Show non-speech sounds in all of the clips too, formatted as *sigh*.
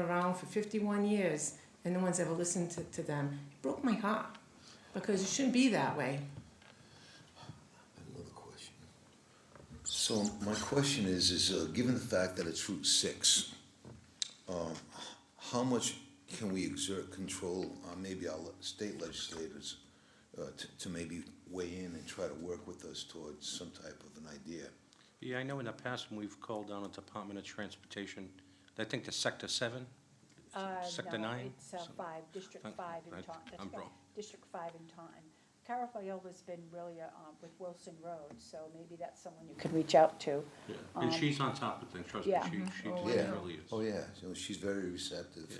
around for 51 years, and no one's ever listened to, to them. It broke my heart because it shouldn't be that way. Another question. So my question is, is uh, given the fact that it's Route Six, um, how much can we exert control on maybe our le- state legislators uh, to, to maybe weigh in and try to work with us towards some type of an idea? Yeah, I know in the past, when we've called down on Department of Transportation, I think the Sector Seven, Uh, Sector no, nine? It's uh, Some- five, District I- Five in I- Taunton. That's I'm right. wrong. District Five in Taunton. Carafiola's been really uh, with Wilson Road, so maybe that's someone you could reach out to. and Um, she's on top of things, trust me, yeah. she, she Oh, I know. really Oh, is. yeah, so she's very receptive. Yeah,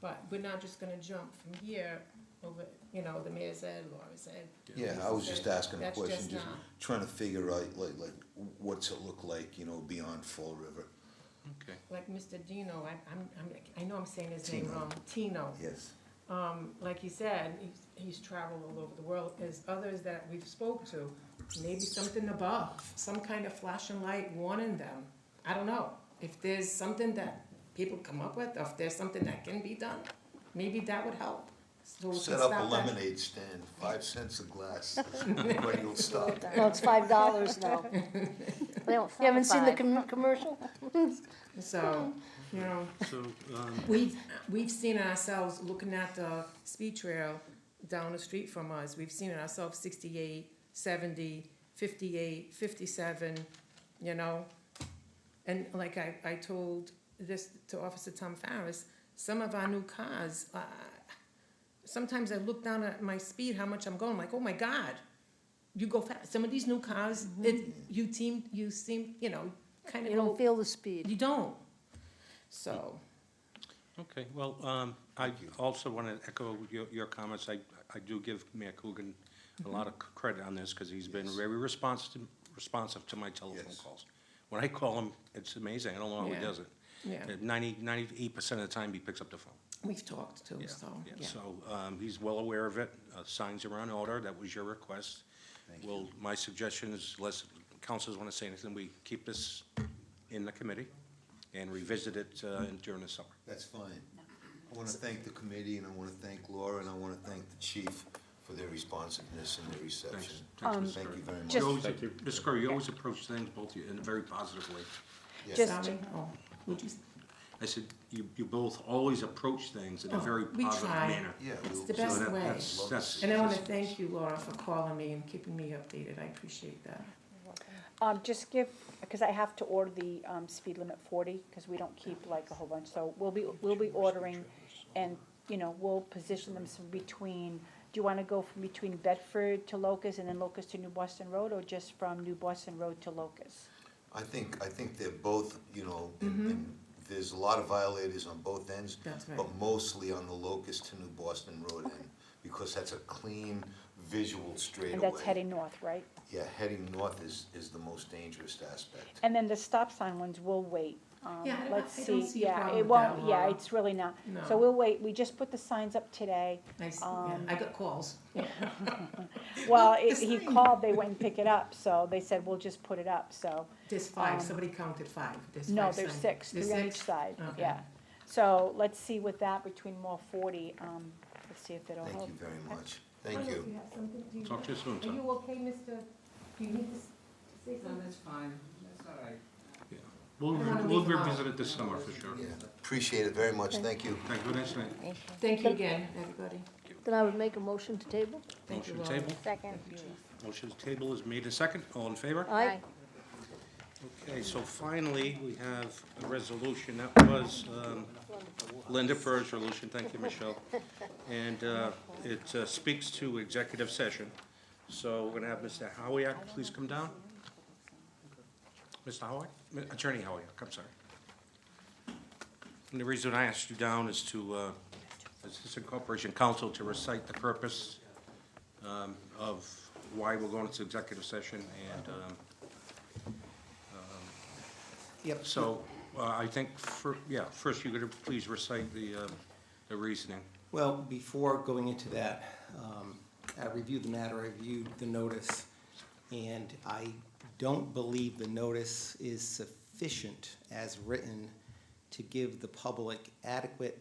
But we're not just going to jump from here over, you know, the mayor said, Laura said. Yeah, I was just asking a That's question, just just not- trying to figure out, like, like, what's it look like, you know, beyond Fall River? okay. Like Mr. Dino, I, I'm, I'm, I know I'm saying his name Tino. wrong. Tino. Yes. um, like he said, he's, he's traveled all over the world, as others that we've spoke to, maybe something above, some kind of flashing light warning them. I don't know, if there's something that people come up with, or if there's something that can be done, maybe that would help. So we can Set up a stop that. lemonade stand, five cents a *laughs* glass, everybody will stop. No, it's five *laughs* dollars *laughs* now. They don't You haven't seen the qualify. com- commercial? So, you know, *laughs* So, um, we've, we've seen it ourselves looking at the speed trail down the street from us. We've seen it ourselves 68, 70, 58, 57, you know? And like I, I told this to Officer Tom Farris, some of our new cars, uh, sometimes I look down at my speed, how much I'm going, like, oh my God, you go fast. Some of these new cars, it, you seem, you seem, you know, kind of You don't go, feel the speed. you don't. So. okay, well, um, I also want to echo your, your comments, I, I do give Mayor Coogan a lot Mm-hmm. of credit on this, because he's been Yes. very responsive, responsive to my telephone Yes. calls. When I call him, it's amazing, I don't know how he Yeah. does it. Yeah. Uh, Ninety, ninety-eight percent of the time, he picks up the phone. We've talked too, so, yeah. So, um, he's well aware of it, uh, signs are on order, that was your request. Well, my suggestion is, unless councils wanna say anything, we keep this in the committee and revisit it, uh, during the summer. That's fine. I want to thank the committee, and I want to thank Laura, and I want to thank the chief for their responsiveness and their reception. Thanks, Um, Mr. Thank you very much. You always- Ms. Curry, you always approach things both you- in a very positive way. Yes. Just- Sorry, oh, would you, s- I said, you, you both always approach things in a Oh, very we positive try. manner. Yeah. It's we'll- the so best that- way. that's lovely. That's- and I wanna thank you, Laura, for calling me and keeping me updated, I appreciate that. Um, just give, because I have to order the, um, speed limit forty, because we don't keep like a whole bunch, so we'll be, we'll be ordering, and, you know, we'll position them some between, do you wanna go from between Bedford to Locust and then Locust to New Boston Road, or just from New Boston Road to Locust? I think, I think they're both, you know, and- and there's a lot of violators on both ends. That's Mm-hmm. right. But mostly on the Locust to New Boston Road end, because that's a clean visual straightaway. And that's heading north, right? Yeah, heading north is, is the most dangerous aspect. And then the stop sign ones, we'll wait. Um, Yeah, I don't- let's I don't see a yeah, problem it with won't- that, Yeah, Laura. it's really not. No. So we'll wait, we just put the signs up *laughs* today. I, s- yeah, Um, I got calls. Well, it- the he sign. called, they went and picked it up, so they said, we'll just put it up, so. There's five, um, somebody counted five, there's five. No, there's signs. six, There's three on each six? side, Okay. yeah. So let's see with that between more forty, um, let's see if it'll Thank help. you very much. Thank you. Talk to you soon, son. okay, Mr., do you need to s- say that's fine, that's all right. Yeah. We'll, I wanna we'll leave them out. revisit it this summer for sure. Yeah, appreciate it very much, thank you. Thank you, nice night. Thank you again, everybody. Then I would make a motion to table. Thank you, Motion Laura. table, Second. motion table is made and second, all in favor? Aye. Okay, so finally, we have a resolution that was um, Linda Furr's resolution, thank you, Michelle. And uh, it uh, speaks to executive session. So we're gonna have Mr. Howiak, please come down. Mr. Howiak, Mi- Attorney Howiak, I'm sorry. And the reason I asked you down is to, uh, Assistant Corporation Counsel to recite the purpose um, of why we're going into executive session and um, Yep. so, uh, I think, fir- yeah, first you're gonna please recite the, uh, the reasoning. Well, before going into that, um, I reviewed the matter, I reviewed the notice, and I don't believe the notice is sufficient as written to give the public adequate